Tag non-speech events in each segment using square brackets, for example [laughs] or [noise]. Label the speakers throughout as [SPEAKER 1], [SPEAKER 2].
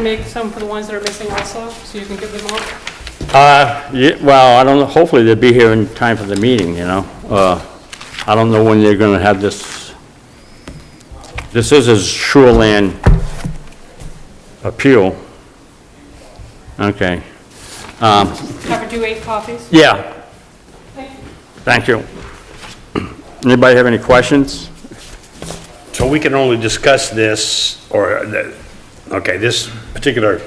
[SPEAKER 1] Make some for the ones that are missing also, so you can give them all.
[SPEAKER 2] Uh, ye- well, I don't know, hopefully they'll be here in time for the meeting, you know? Uh, I don't know when they're gonna have this, this is a shoreland appeal. Okay,
[SPEAKER 1] Have her do eight copies.
[SPEAKER 2] yeah,
[SPEAKER 1] Thank you.
[SPEAKER 2] thank you. Anybody have any questions?
[SPEAKER 3] So we can only discuss this, or, the- okay, this particular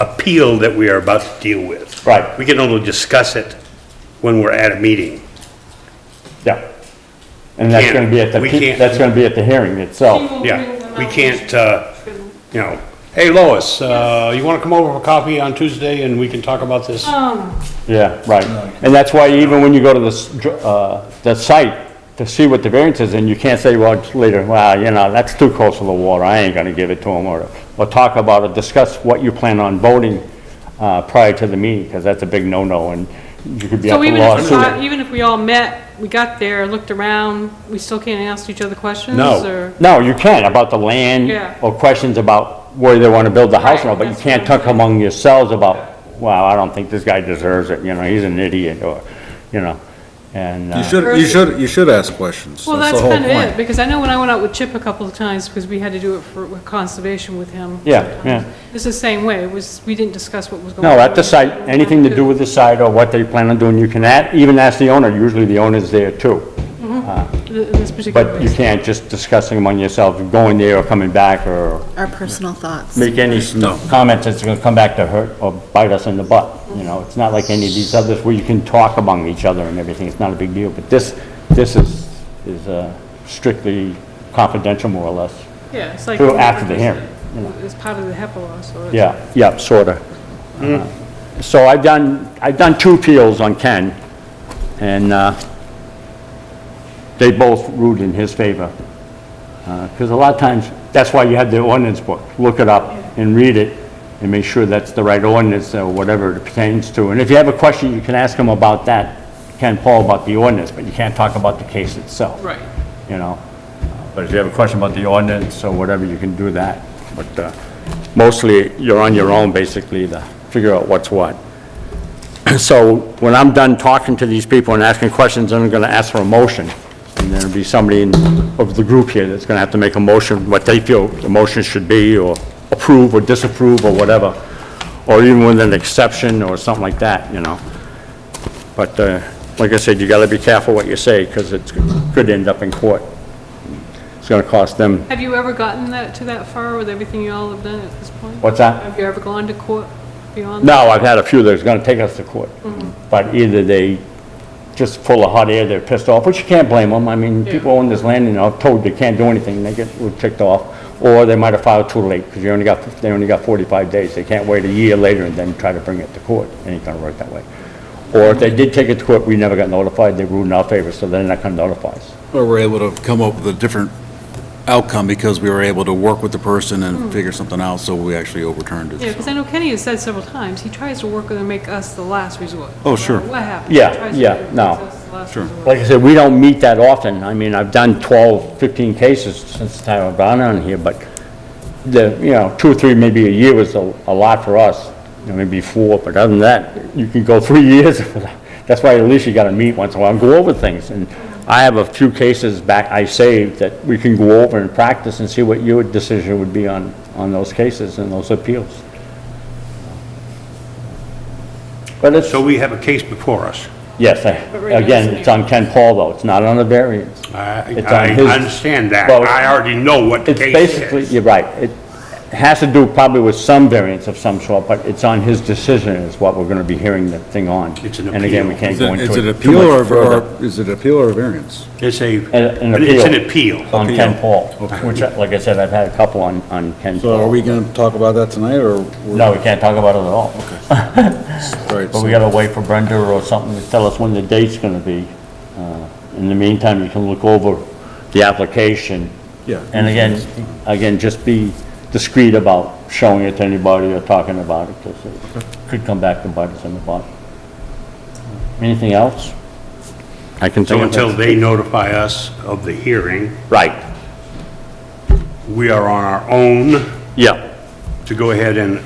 [SPEAKER 3] appeal that we are about to deal with.
[SPEAKER 2] Right.
[SPEAKER 3] We can only discuss it when we're at a meeting.
[SPEAKER 2] Yeah. And that's
[SPEAKER 3] Can't.
[SPEAKER 2] gonna be at the,
[SPEAKER 3] We
[SPEAKER 2] pe-
[SPEAKER 3] can't.
[SPEAKER 2] that's gonna be at the hearing itself.
[SPEAKER 1] We'll bring
[SPEAKER 3] Yeah,
[SPEAKER 1] them
[SPEAKER 3] we
[SPEAKER 1] out.
[SPEAKER 3] can't, uh, you know, hey Lois, uh, you want to come over for coffee on Tuesday and we can talk about this?
[SPEAKER 1] Um,
[SPEAKER 2] Yeah, right. And that's why even when you go to the, s- dr- uh, the site to see what the variance is, and you can't say, well, it's later, well, you know, that's too close to the water, I ain't gonna give it to them, or, or talk about it, discuss what you plan on voting, uh, prior to the meeting, because that's a big no-no, and you could be up
[SPEAKER 1] so
[SPEAKER 2] for
[SPEAKER 1] even if, not-
[SPEAKER 2] lawsuit.
[SPEAKER 1] even if we all met, we got there, looked around, we still can't ask each other questions?
[SPEAKER 3] No.
[SPEAKER 1] or-
[SPEAKER 2] No, you can, about the land,
[SPEAKER 1] Yeah.
[SPEAKER 2] or questions about where they wanna build the house, and all, but you
[SPEAKER 1] Right,
[SPEAKER 2] can't
[SPEAKER 1] that's what I'm
[SPEAKER 2] talk among yourselves about, well, I don't think this guy deserves it, you know, he's an idiot, or, you know, and.
[SPEAKER 4] You
[SPEAKER 2] uh,
[SPEAKER 4] should, you should, you should ask questions.
[SPEAKER 1] Well,
[SPEAKER 4] That's
[SPEAKER 1] that's
[SPEAKER 4] the whole
[SPEAKER 1] kind of it,
[SPEAKER 4] point.
[SPEAKER 1] because I know when I went out with Chip a couple of times, because we had to do it for with conservation with him.
[SPEAKER 2] Yeah, yeah.
[SPEAKER 1] It's the same way, it was, we didn't discuss what was going on.
[SPEAKER 2] No, at the site, anything to do with the site or what they plan on doing, you can a even ask the owner, usually the owner's there too.
[SPEAKER 1] In this particular
[SPEAKER 2] But you
[SPEAKER 1] case.
[SPEAKER 2] can't just discussing among yourself, going there or coming back or
[SPEAKER 5] our personal thoughts.
[SPEAKER 2] make any
[SPEAKER 4] No.
[SPEAKER 2] comments that's gonna come back to hurt or bite us in the butt, you know? It's not like any of these others where you can talk among each other and everything, it's not a big deal. But this, this is, is uh, strictly confidential more or less.
[SPEAKER 1] Yeah, it's like.
[SPEAKER 2] Through after the hearing,
[SPEAKER 1] It's part of the HEPA law, so. it's-
[SPEAKER 2] Yeah, yeah, sorta. So I've done, I've done two appeals on Ken, and, uh, they both ruled in his favor. Because a lot of times, that's why you have the ordinance book. Look it up and read it and make sure that's the right ordinance or whatever it pertains to. And if you have a question, you can ask him about that, Ken Paul, about the ordinance, but you can't talk about the case itself.
[SPEAKER 1] Right.
[SPEAKER 2] You know? But if you have a question about the ordinance or whatever, you can do that. But uh, mostly, you're on your own, basically, to figure out what's what. [clears throat] So when I'm done talking to these people and asking questions, then I'm going to ask for a motion. And there'll be somebody in- of the group here that's going to have to make a motion, what they feel the motion should be, or approve or disapprove or whatever, or even with an exception or something like that, you know? But uh, like I said, you got to be careful what you say, because it could end up in court. It's going to cost them,
[SPEAKER 1] Have you ever gotten that, to that far with everything you all have done at this point?
[SPEAKER 2] what's that?
[SPEAKER 1] Have you ever gone to court beyond?
[SPEAKER 2] No, I've had a few that's gonna take us to court. But either they just full of hot air, they're pissed off, which you can't blame them. I mean, people own this land and are told they can't do anything, they get ticked off. Or they might have filed too late, because you only got, they only got 45 days. They can't wait a year later and then try to bring it to court. It ain't gonna work that way. Or if they did take it to court, we never got notified, they ruled in our favor, so they're not gonna notify us.
[SPEAKER 4] Or we're able to come up with a different outcome because we were able to work with the person and figure something out, so we actually overturned
[SPEAKER 1] Hmm. Yeah,
[SPEAKER 4] it.
[SPEAKER 1] because I know Kenny has said several times, he tries to work with and make us the last resort.
[SPEAKER 4] Oh, sure.
[SPEAKER 1] No matter What happens?
[SPEAKER 2] Yeah,
[SPEAKER 1] he tries to
[SPEAKER 2] yeah,
[SPEAKER 1] make
[SPEAKER 2] no.
[SPEAKER 1] us the last resort.
[SPEAKER 2] Like I said, we don't meet that often. I mean, I've done 12, 15 cases since the time I've gone on here, but the, you know, two or three, maybe a year was a a lot for us, you know, maybe four, but other than that, you can go [laughs] three years. That's why at least you gotta meet once in a while and go over things. And I have a few cases back I saved that we can go over and practice and see what your decision would be on, on those cases and those appeals. But it's,
[SPEAKER 3] So we have a case before us.
[SPEAKER 2] yes, I-
[SPEAKER 1] But right now
[SPEAKER 2] again,
[SPEAKER 1] it's-
[SPEAKER 2] it's on Ken Paul though, it's not on the variance.
[SPEAKER 3] I,
[SPEAKER 2] It's on
[SPEAKER 3] I
[SPEAKER 2] his-
[SPEAKER 3] understand that.
[SPEAKER 2] Well,
[SPEAKER 3] I already know what the
[SPEAKER 2] It's
[SPEAKER 3] case
[SPEAKER 2] basically,
[SPEAKER 3] is.
[SPEAKER 2] you're right, it has to do probably with some variance of some sort, but it's on his decision is what we're gonna be hearing the thing on.
[SPEAKER 3] It's an
[SPEAKER 2] And again, we
[SPEAKER 3] appeal.
[SPEAKER 2] can't
[SPEAKER 4] Is
[SPEAKER 2] go
[SPEAKER 4] it is
[SPEAKER 2] into
[SPEAKER 4] it
[SPEAKER 2] it too
[SPEAKER 4] appeal
[SPEAKER 2] much
[SPEAKER 4] or,
[SPEAKER 2] further
[SPEAKER 4] or- is it apple or a variance?
[SPEAKER 3] It's a,
[SPEAKER 2] an
[SPEAKER 3] it's an
[SPEAKER 2] appeal.
[SPEAKER 3] appeal.
[SPEAKER 2] on Ken
[SPEAKER 4] Appeal.
[SPEAKER 2] Paul, which, like I said, I've had a couple on, on Ken
[SPEAKER 4] So are
[SPEAKER 2] Paul.
[SPEAKER 4] we going to talk about that tonight, or? we're-
[SPEAKER 2] No, we can't talk about it at all,
[SPEAKER 4] Right,
[SPEAKER 2] but we
[SPEAKER 4] so-
[SPEAKER 2] gotta wait for Brenda or something to tell us when the date's gonna be. Uh, In the meantime, you can look over the application.
[SPEAKER 4] Yeah.
[SPEAKER 2] And again, again, just be discreet about showing it to anybody or talking about it, because it could come back to bite us in the butt. Anything else? I can
[SPEAKER 3] So
[SPEAKER 2] think
[SPEAKER 3] until
[SPEAKER 2] of it.
[SPEAKER 3] they notify us of the hearing,
[SPEAKER 2] Right,
[SPEAKER 3] we are on our own
[SPEAKER 2] yeah,
[SPEAKER 3] to to go ahead and